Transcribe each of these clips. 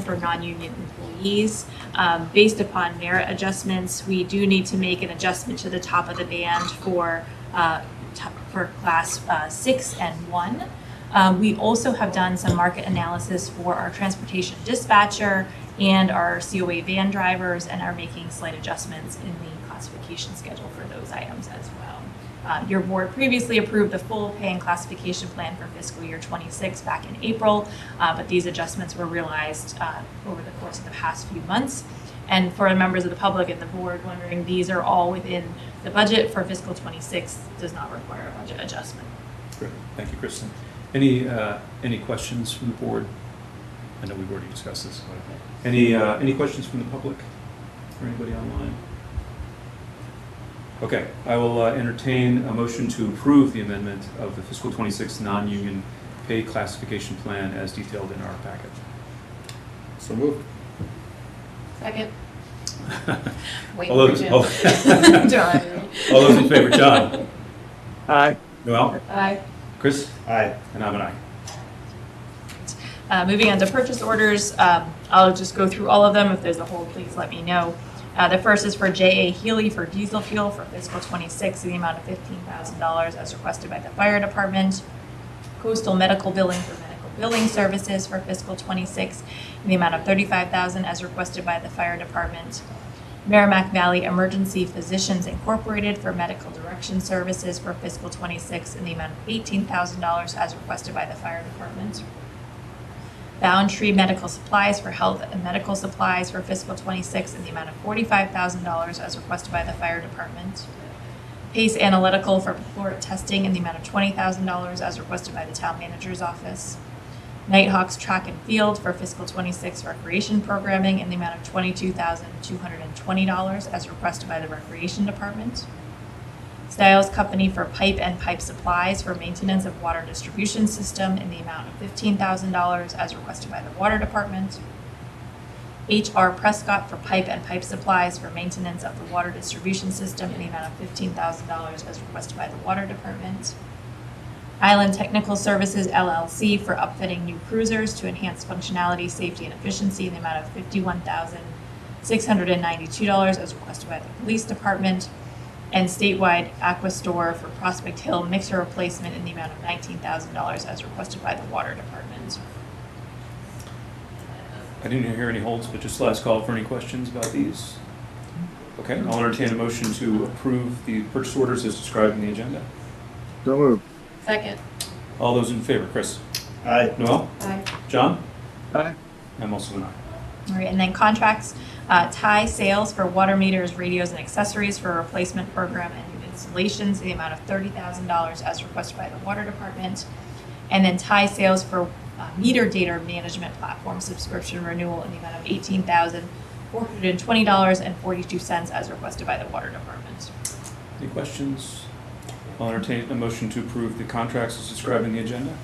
for non-union employees. Um, Based upon merit adjustments, we do need to make an adjustment to the top of the band for, uh, t- for class uh, six and one. Um, We also have done some market analysis for our transportation dispatcher and our COA van drivers and are making slight adjustments in the classification schedule for those items as well. Uh, Your board previously approved the full pay and classification plan for fiscal year '26 back in April, uh, but these adjustments were realized uh, over the course of the past few months. And for the members of the public and the board wondering, these are all within the budget for fiscal '26, does not require a budget adjustment. Great. Thank you, Kristen. Any, uh, any questions from the board? I know we've already discussed this. but- Any, uh, any questions from the public or anybody online? Okay, I will uh, entertain a motion to approve the amendment of the fiscal '26 non-union pay classification plan as detailed in our packet. So moved. Second. Wait All those- all- John. All those in favor, John? Aye. Noel? Aye. Chris? Aye. And I'm an aye. Uh, Moving on to purchase orders, um, I'll just go through all of them. If there's a hold, please let me know. Uh, The first is for J.A. Healy for diesel fuel for fiscal '26 in the amount of $15,000 as requested by the fire department. Coastal medical billing for medical billing services for fiscal '26 in the amount of $35,000 as requested by the fire department. Merrimack Valley Emergency Physicians Incorporated for medical direction services for fiscal '26 in the amount of $18,000 as requested by the fire department. Boundtree Medical Supplies for Health and Medical Supplies for fiscal '26 in the amount of $45,000 as requested by the fire department. Pace Analytical for caloric testing in the amount of $20,000 as requested by the town manager's office. Nighthawks Track and Field for fiscal '26 recreation programming in the amount of $22,220 as requested by the recreation department. Styles Company for pipe and pipe supplies for maintenance of water distribution system in the amount of fifteen thousand dollars as requested by the water department. HR Prescott for pipe and pipe supplies for maintenance of the water distribution system in the amount of fifteen thousand dollars as requested by the water department. Island Technical Services LLC for upfitting new cruisers to enhance functionality, safety, and efficiency in the amount of fifty-one thousand six hundred and ninety-two dollars as requested by the police department. And statewide Aqua Store for Prospect Hill mixer replacement in the amount of nineteen thousand dollars as requested by the water department. I didn't hear any holds, but just last call for any questions about these. Okay, I'll entertain a motion to approve the purchase orders as described in the agenda. So moved. Second. All those in favor, Chris? Aye. Noel? Aye. John? Aye. I'm also an aye. All right, and then contracts, uh, tie sales for water meters, radios, and accessories for replacement program and new installations, in the amount of thirty thousand dollars as requested by the water department. And then tie sales for uh, meter data management platform subscription renewal in the amount of eighteen thousand four hundred and twenty dollars and forty-two cents as requested by the water department. Any questions? I'll entertain a motion to approve the contracts as described in the agenda.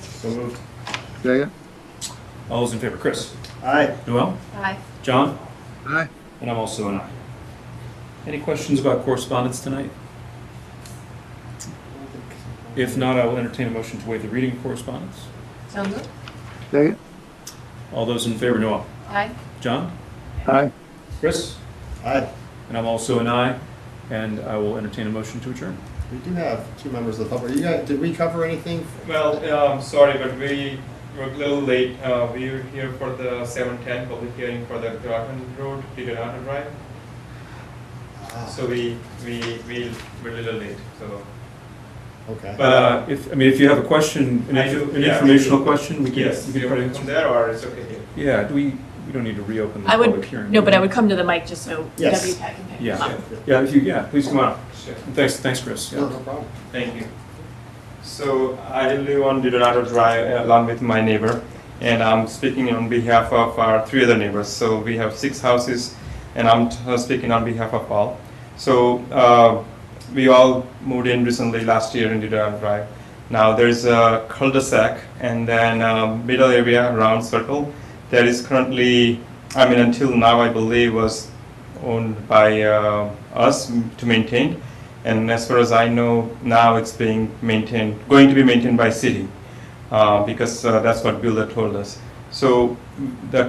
So moved. Second. All those in favor, Chris? Aye. Noel? Aye. John? Aye. And I'm also an aye. Any questions about correspondence tonight? If not, I will entertain a motion to waive the reading of correspondence. So moved. Second. All those in favor, Noel? Aye. John? Aye. Chris? Aye. And I'm also an aye, and I will entertain a motion to adjourn. We do have two members of the public. You guys, did we cover anything? Well, um, sorry, but we were a little late. Uh, we were here for the seven ten public hearing for the Groton Road, the Groton Drive. Ah, So we, we, we were a little late, so. Ah, Okay. But uh, if, I mean, if you have a question, an I do, an yeah. informational question, we can. Yes, we can do you try to want to answer. come there or it's okay here? Yeah, do we, we don't need to reopen the I public would, hearing. no, but I would come to the mic just so Yes. WPAT can pick Yeah. them up. Yeah, if you, yeah, please come on. Sure. And Thanks, thanks, Chris. No, Yeah. no problem. Thank you. So I live on Dorado Drive uh, along with my neighbor, and I'm speaking on behalf of our three other neighbors. So we have six houses, and I'm t- uh, speaking on behalf of all. So uh, we all moved in recently last year in Dorado Drive. Now there's a cul-de-sac, and then uh, middle area, round circle, that is currently, I mean, until now, I believe was owned by uh, us to maintain. And as far as I know, now it's being maintained, going to be maintained by city, uh, because uh, that's what Builder told us. So the